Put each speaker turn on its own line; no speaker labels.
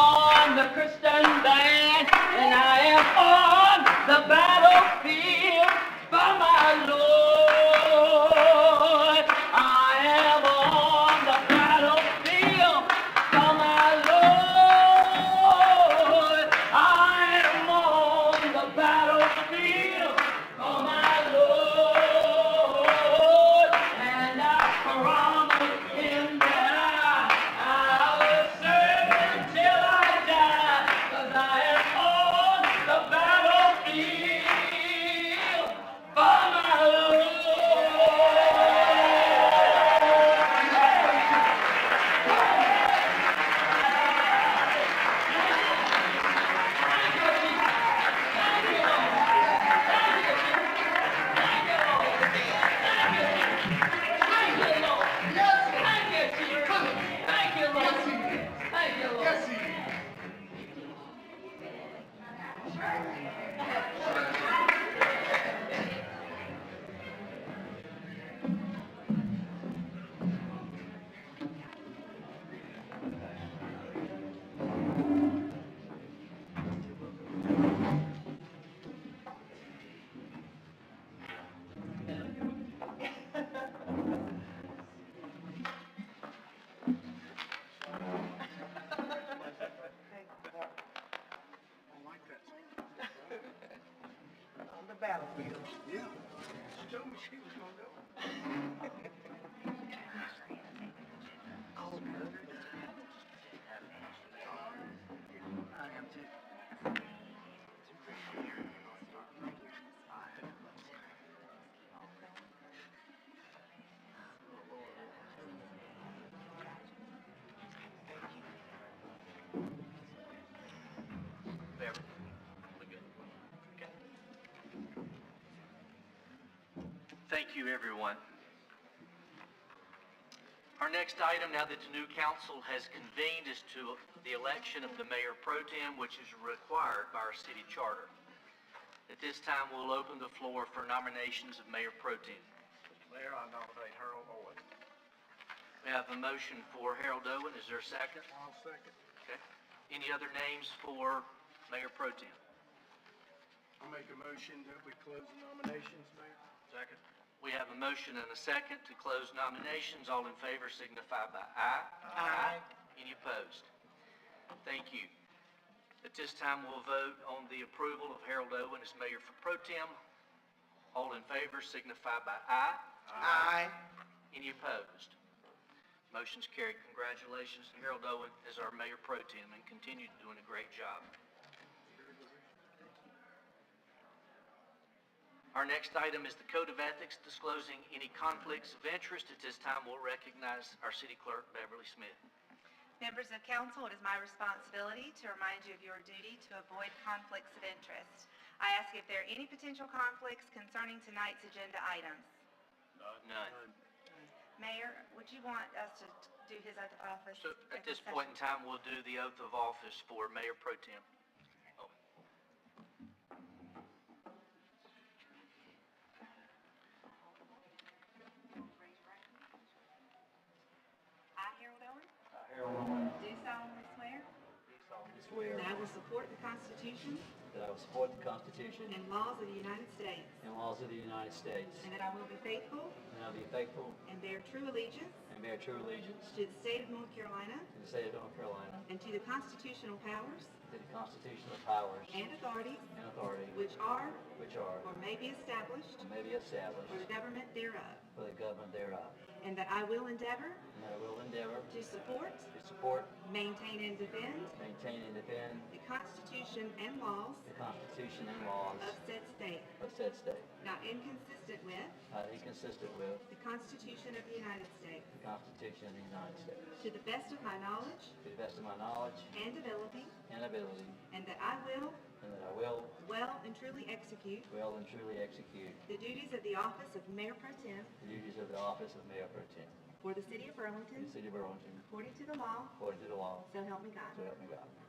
a Christian band, and I am on the battlefield for my Lord. I am on the battlefield for my Lord. I am on the battlefield for my Lord, and I promise him that I, I will serve him till I die, 'cause I am on the battlefield for my Lord. Thank you, Lord. Thank you, Jesus. Thank you, Lord. Thank you, Lord.
On the battlefield.
Thank you, everyone. Our next item, now that the new council has convened, is to the election of the mayor pro tem, which is required by our city charter. At this time, we'll open the floor for nominations of mayor pro tem.
Mayor, I nominate Harold Owen.
We have a motion for Harold Owen. Is there a second?
I'll second.
Okay. Any other names for mayor pro tem?
I make a motion that we close the nominations, Mayor.
Second. We have a motion and a second to close nominations. All in favor signify by aye. Aye. Any opposed? Thank you. At this time, we'll vote on the approval of Harold Owen as mayor for pro tem. All in favor signify by aye.
Aye.
Any opposed? Motion's carried. Congratulations to Harold Owen as our mayor pro tem and continue doing a great job. Our next item is the Code of Ethics disclosing any conflicts of interest. At this time, we'll recognize our city clerk, Beverly Smith.
Members of council, it is my responsibility to remind you of your duty to avoid conflicts of interest. I ask if there are any potential conflicts concerning tonight's agenda items.
Uh, None.
Mayor, would you want us to do his oath of office?
So at this
open
point in
session?
time, we'll do the oath of office for Mayor Pro Tem. Owen.
I, Harold Owen,
I, Harold Owen.
do solemnly swear
Swear
that I will support the Constitution
That I will support the Constitution
and laws of the United States,
and laws of the United States.
and that I will be faithful
And I will be faithful
and bear true allegiance
and bear true allegiance
to the state of North Carolina
to the state of North Carolina,
and to the constitutional powers
to the constitutional powers
and authorities
and authority
which are
which are
or may be established
and may be established
for the government thereof,
for the government thereof.
and that I will endeavor
And that I will endeavor
to support,
to support,
maintain, and defend
maintain, and defend
the Constitution and laws
the Constitution and laws
of said state,
of said state,
not inconsistent with
not inconsistent with
the Constitution of the United States,
the Constitution of the United States.
to the best of my knowledge
To the best of my knowledge
and ability,
and ability,
and that I will
and that I will
well and truly execute
well and truly execute
the duties of the office of Mayor Pro Tem
the duties of the office of Mayor Pro Tem
for the city of
in
Burlington,
the city of Burlington,
according to the law,
according to the law.
so help me God.
So help me God.